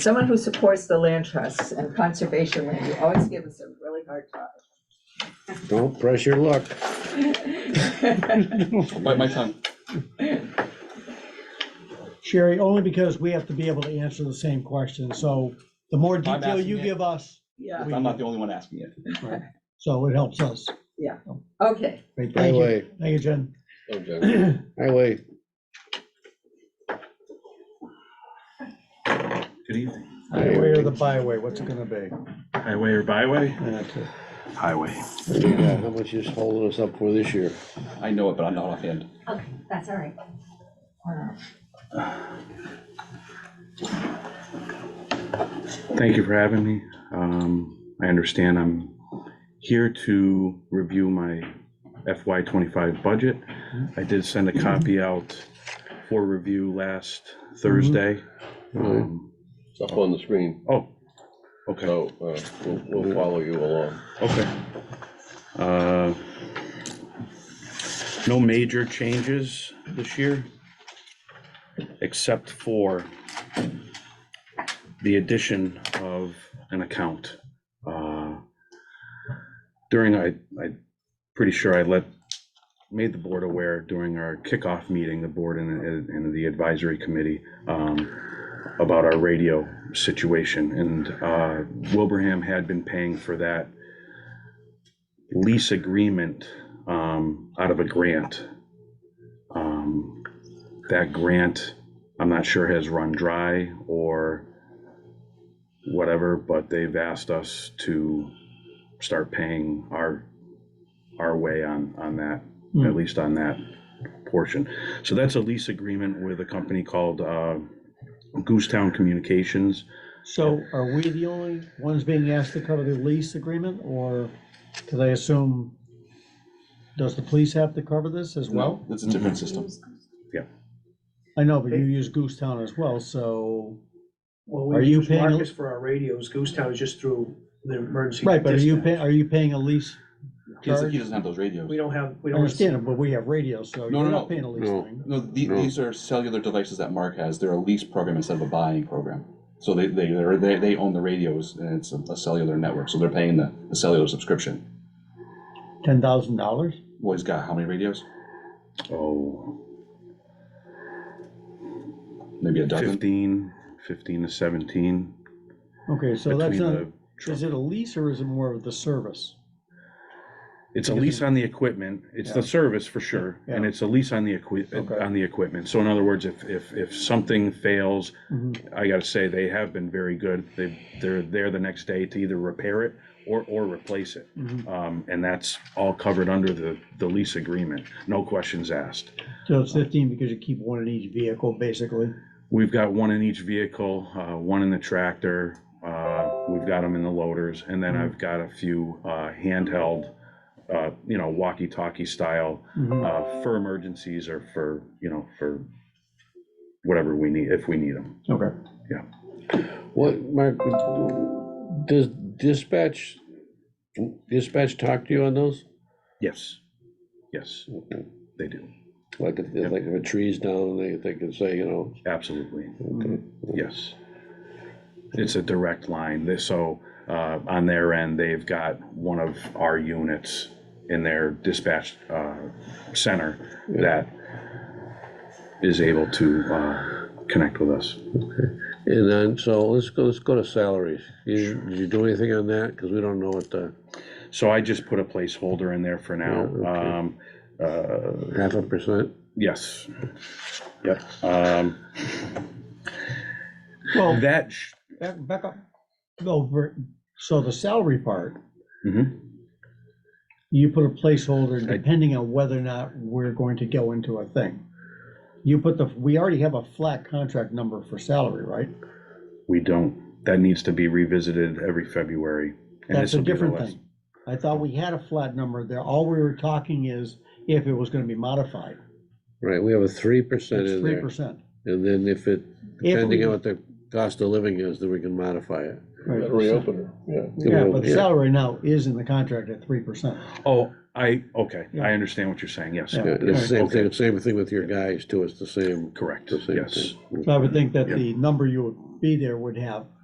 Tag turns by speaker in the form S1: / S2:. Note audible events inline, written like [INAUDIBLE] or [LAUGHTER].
S1: Someone who supports the land trusts and conservation land, you always give us a really hard
S2: Don't press your luck.
S1: time. [LAUGHS]
S3: Bite my tongue.
S4: Sherry, only because we have to be able to answer the same question, so the more
S3: I'm
S4: detail
S3: asking
S4: you
S3: it.
S4: give us,
S1: Yeah,
S3: I'm not the only one asking it.
S4: so it helps us.
S1: okay,
S4: Great, Thank you,
S2: Highway,
S4: thank you, Jen.
S2: highway,
S5: Good evening.
S4: Highway or the byway, what's it gonna be?
S5: Highway or byway?
S4: That's it.
S5: Highway.
S2: yeah, how much is holding us up for this year?
S3: I know it, but I'm not offhand.
S6: Okay, that's all right.
S5: Thank you for having me. Um, I understand I'm here to review my FY twenty-five budget. I did send a copy out for review last Thursday.
S2: Mhm.
S5: Um,
S7: It's up on the screen,
S5: Oh, okay.
S7: so uh, we'll, we'll follow you along.
S5: Okay. Uh, No major changes this year, except for the addition of an account. Uh, During, I, I, pretty sure I let, made the board aware during our kickoff meeting, the board and, and the advisory committee, um, about our radio situation, and uh, Wilbraham had been paying for that lease agreement um, out of a grant. Um, That grant, I'm not sure has run dry or whatever, but they've asked us to start paying our, our way on, on that, at
S4: Hmm.
S5: least on that portion. So that's a lease agreement with a company called uh, Goosetown Communications.
S4: So are we the only ones being asked to cover the lease agreement, or, because I assume, does the police have to cover this as well?
S3: It's a different system.
S4: I know, but you use Goose Town as well, so,
S8: Well,
S4: Are
S8: we
S4: you
S8: use
S4: paying a-
S8: Marcus for our radios, Goose Town is just through the emergency.
S4: right, but are you paying,
S8: dispatch.
S4: are you paying a lease?
S3: He doesn't, he
S4: charge?
S3: doesn't have those radios.
S8: We don't have,
S4: I
S8: we don't.
S4: understand it, but we have radio, so
S3: No, no,
S4: you're not
S3: no.
S4: paying a lease
S2: No.
S4: thing.
S3: No, the,
S2: No.
S3: these are cellular devices that Mark has. They're a lease program instead of a buying program. So they, they, they're- they, they own the radios and it's a a cellular network, so they're paying the, the cellular subscription.
S4: Ten thousand dollars?
S3: Well, he's got how many radios?
S5: Oh,
S3: Maybe a dozen?
S5: 15, 15 to 17.
S4: Okay, so that's
S5: between
S4: not,
S5: the-
S4: is it a lease or is it more of the service?
S5: It's a lease on the equipment, it's the service for sure, and
S4: Yeah.
S5: it's a lease on the equi,
S4: Okay.
S5: on the equipment. So in other words, if, if, if something fails,
S4: Mhm.
S5: I gotta say, they have been very good. They, they're there the next day to either repair it or, or replace it.
S4: Mhm.
S5: Um, and that's all covered under the, the lease agreement, no questions asked.
S4: So it's fifteen because you keep one in each vehicle, basically.
S5: We've got one in each vehicle, uh, one in the tractor, uh, we've got them in the loaders,
S4: Mm-hmm.
S5: and then I've got a few, uh, handheld, uh, you know, walkie-talkie style,
S4: Mhm.
S5: uh, for emergencies or for, you know, for whatever we need, if we need them.
S4: Okay.
S2: What, Mark, does dispatch, dispatch talk to you on those?
S5: Yes, yes, they do,
S2: Like, if- like if a tree's down, they, they can say, you know,
S5: absolutely.
S2: okay,
S5: Yes. It's a direct line, They- so, uh, on their end, they've got one of our units in their dispatch, uh, center that is able to, uh, connect with us.
S2: and then, so let's go, let's go to salaries. You, did you do anything on that? Cause we don't know what the,
S5: So I just put a placeholder in there for now.
S2: Yeah, okay.
S5: Um, uh,
S2: half a percent?
S5: yes. Yep, um,
S4: Well,
S5: that, sh-
S4: back, back up. No, ver- so the salary part,
S5: mhm.
S4: you put a placeholder
S5: I-
S4: depending on whether or not we're going to go into a thing. You put the, we already have a flat contract number for salary, right?
S5: we don't, that needs to be revisited every February. and
S4: That's
S5: this
S4: a
S5: will be the
S4: different
S5: last-
S4: thing. I thought we had a flat number there. All we were talking is if it was gonna be modified.
S2: Right, we have a three percent
S4: It's
S2: in
S4: three
S2: there.
S4: percent.
S2: And then if it,
S4: If
S2: depending
S4: we-
S2: on what the cost of living is, then we can modify it.
S7: Reopen it, yeah.
S4: Yeah, but salary now is in the contract at three percent.
S5: Oh, I, okay,
S4: Yeah.
S5: I understand what you're saying, yes.
S4: Yeah.
S2: Yeah, it's the same
S5: Okay.
S2: thing, same thing with your guys too, it's the same.
S5: Correct,
S2: the same
S5: yes.
S2: thing.
S4: So I would think that
S5: Yeah.
S4: the number you would be there would have